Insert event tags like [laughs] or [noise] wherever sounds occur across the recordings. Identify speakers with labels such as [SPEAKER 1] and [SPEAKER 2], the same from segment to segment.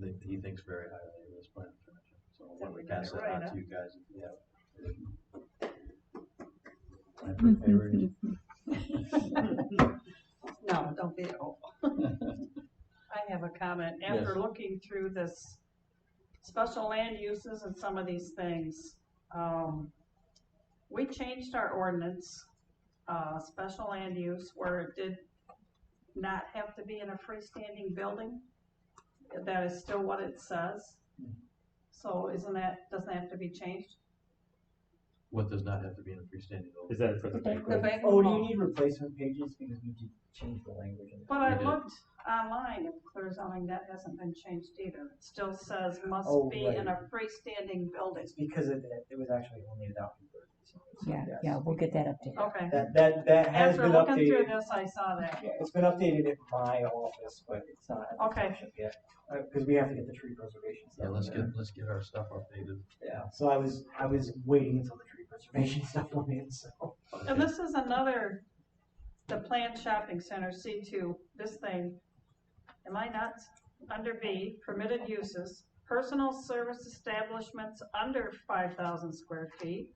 [SPEAKER 1] think, he thinks very highly of this plan of commission, so when we
[SPEAKER 2] Something
[SPEAKER 1] pass
[SPEAKER 2] about
[SPEAKER 1] it
[SPEAKER 2] it,
[SPEAKER 1] on to
[SPEAKER 2] right,
[SPEAKER 1] you guys, if you have.
[SPEAKER 3] Mm-hmm.
[SPEAKER 1] I'm in favor.
[SPEAKER 2] No, don't be awful. I have a comment. After
[SPEAKER 1] Yes.
[SPEAKER 2] looking through this special land uses and some of these things, um, we changed our ordinance, uh, special land use where it did not have to be in a freestanding building. That is still what it says. So isn't that, doesn't that have to be changed?
[SPEAKER 1] What does not have to be in a freestanding building?
[SPEAKER 3] Is that for the bank?
[SPEAKER 2] The bank
[SPEAKER 4] Oh, do you
[SPEAKER 2] loan.
[SPEAKER 4] need replacement pages because we did change the language in
[SPEAKER 2] But
[SPEAKER 4] there?
[SPEAKER 2] I
[SPEAKER 1] We did.
[SPEAKER 2] looked online at clear zoning, that hasn't been changed either. It still says must
[SPEAKER 4] Oh,
[SPEAKER 2] be in
[SPEAKER 4] right.
[SPEAKER 2] a freestanding building.
[SPEAKER 4] It's because of that, it was actually only adopted. version, so
[SPEAKER 5] Yeah,
[SPEAKER 4] yes.
[SPEAKER 5] yeah, we'll get that updated.
[SPEAKER 2] Okay.
[SPEAKER 4] That, that, that has
[SPEAKER 2] After
[SPEAKER 4] been
[SPEAKER 2] looking through
[SPEAKER 4] updated.
[SPEAKER 2] this, I saw that.
[SPEAKER 4] Yeah, it's been updated at my office, but it's not. at the
[SPEAKER 2] Okay.
[SPEAKER 4] township Yet, uh, cause we have to get the tree preservation stuff.
[SPEAKER 1] Yeah, let's
[SPEAKER 4] in
[SPEAKER 1] get,
[SPEAKER 4] there.
[SPEAKER 1] let's get our stuff updated.
[SPEAKER 4] Yeah, so I was, I was waiting until the tree preservation [laughs] stuff went in, so.
[SPEAKER 2] And this is another, the planned shopping center, C two, this thing, am I nuts? Under B, permitted uses, personal service establishments under five thousand square feet.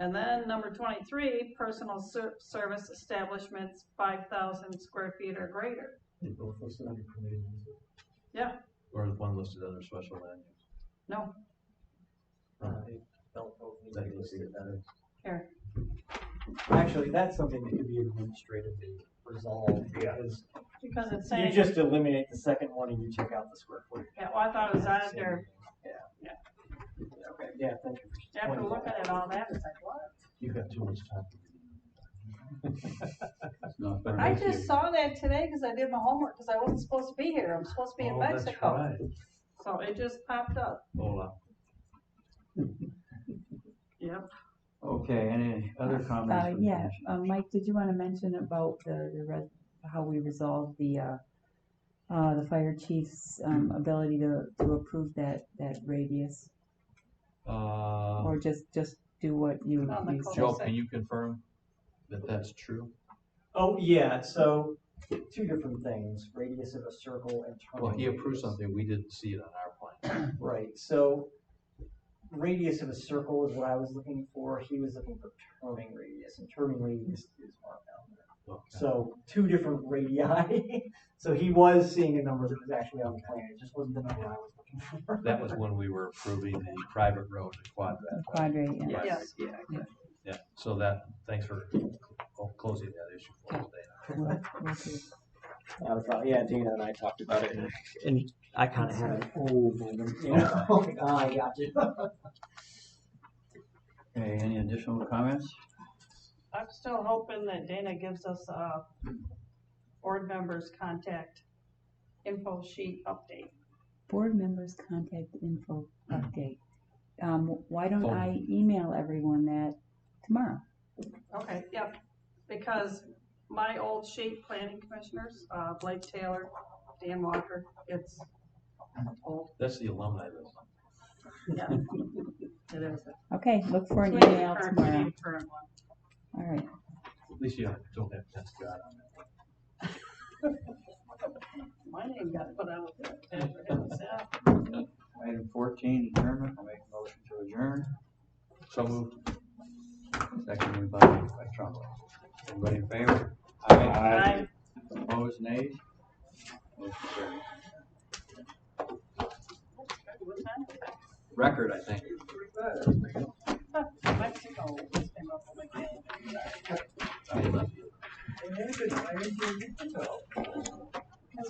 [SPEAKER 2] And then number twenty-three, personal ser- service establishments five thousand square feet or greater.
[SPEAKER 4] They both listed under permitted uses.
[SPEAKER 1] Or the one listed under special land use.
[SPEAKER 2] No.
[SPEAKER 4] Uh, they don't both need to
[SPEAKER 1] That
[SPEAKER 4] be
[SPEAKER 1] needs to
[SPEAKER 4] listed.
[SPEAKER 1] get better.
[SPEAKER 4] Actually, that's something that could be administratively resolved because
[SPEAKER 2] Because it's
[SPEAKER 4] You
[SPEAKER 2] saying,
[SPEAKER 4] just eliminate the second one and you check out the square footage.
[SPEAKER 2] yeah, well, I thought it was under,
[SPEAKER 4] Yeah.
[SPEAKER 2] Yeah.
[SPEAKER 4] Okay, yeah, thank you.
[SPEAKER 2] after
[SPEAKER 4] Wonderful.
[SPEAKER 2] looking at all that, it's like, what?
[SPEAKER 1] You've got too much time.
[SPEAKER 3] [laughs]
[SPEAKER 1] No, but
[SPEAKER 2] I
[SPEAKER 1] thank you.
[SPEAKER 2] just saw that today because I did my homework because I wasn't supposed to be here. I'm supposed to be in
[SPEAKER 1] Oh, that's
[SPEAKER 2] Mexico.
[SPEAKER 1] right.
[SPEAKER 2] So it just popped up.
[SPEAKER 1] Hola.
[SPEAKER 2] Yep.
[SPEAKER 6] Okay, any other comments?
[SPEAKER 5] Uh,
[SPEAKER 6] from the
[SPEAKER 5] yeah,
[SPEAKER 6] commission?
[SPEAKER 5] uh, Mike, did you wanna mention about the, the res- how we resolved the, uh, uh, the fire chief's,
[SPEAKER 6] Hmm.
[SPEAKER 5] um, ability to, to approve that, that radius?
[SPEAKER 1] Uh,
[SPEAKER 6] Oh.
[SPEAKER 5] Or just, just do what you,
[SPEAKER 2] On the
[SPEAKER 5] you
[SPEAKER 2] cul-
[SPEAKER 5] said?
[SPEAKER 1] Joe, can you confirm that that's true?
[SPEAKER 4] Oh, yeah, so two different things, radius of a circle and turning.
[SPEAKER 1] Well, he approved
[SPEAKER 4] radius.
[SPEAKER 1] something, we didn't see it on our plan.
[SPEAKER 4] Right, so radius of a circle is what I was looking for. He was looking for turning radius and turning radius is marked down there.
[SPEAKER 1] Okay.
[SPEAKER 4] So two different radii. [laughs] So he was seeing a number that was actually on the plan. It just wasn't the number I was looking for.
[SPEAKER 1] That was when we were approving the private road in Quad
[SPEAKER 5] The
[SPEAKER 1] Rapids.
[SPEAKER 5] quadrate, uh, yeah.
[SPEAKER 1] Right.
[SPEAKER 2] Yes.
[SPEAKER 4] Yeah,
[SPEAKER 1] Yeah, so that, thanks for cl- closing that issue for us, Dana.
[SPEAKER 5] Okay.
[SPEAKER 4] Not a problem. Yeah, Dana and I talked about it, and, and I kind of had an oh moment. You know, [laughs] like, oh, I got you.
[SPEAKER 6] Okay, any additional comments?
[SPEAKER 2] I'm still hoping that Dana gives us a board members contact info sheet update.
[SPEAKER 5] Board members contact info
[SPEAKER 6] Hmm.
[SPEAKER 5] update. Um, why
[SPEAKER 6] Oh.
[SPEAKER 5] don't
[SPEAKER 1] Phone.
[SPEAKER 5] I email everyone that tomorrow?
[SPEAKER 2] Okay, yep. Because my old sheet, planning commissioners, uh, Blake Taylor, Dan Walker, it's old.
[SPEAKER 1] That's the alumni list.
[SPEAKER 2] [laughs] Yeah. It is.
[SPEAKER 5] Okay, look for an
[SPEAKER 2] We need a
[SPEAKER 5] email
[SPEAKER 2] current- we
[SPEAKER 5] tomorrow.
[SPEAKER 2] need a current one.
[SPEAKER 5] All right.
[SPEAKER 1] At least you don't have that Scott on there.
[SPEAKER 2] My name got put out there. Never had this happen.
[SPEAKER 6] Item fourteen, adjournment, I'll make a motion to adjourn.
[SPEAKER 1] So moved.
[SPEAKER 6] Seconded by, by Trumbull. Everybody in favor?
[SPEAKER 2] Aye.
[SPEAKER 6] Opposed, nays? Motion carried. Record, I think.
[SPEAKER 2] Mexico came up with a game.
[SPEAKER 1] I love you.
[SPEAKER 2] Because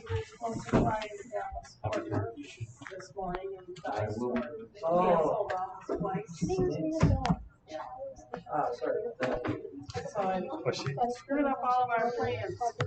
[SPEAKER 2] we were supposed to fly to Dallas Fort Worth this morning and
[SPEAKER 6] I
[SPEAKER 2] die
[SPEAKER 6] will-
[SPEAKER 2] sort of.
[SPEAKER 4] Oh. Ah,
[SPEAKER 2] So I screwed up all of our plans.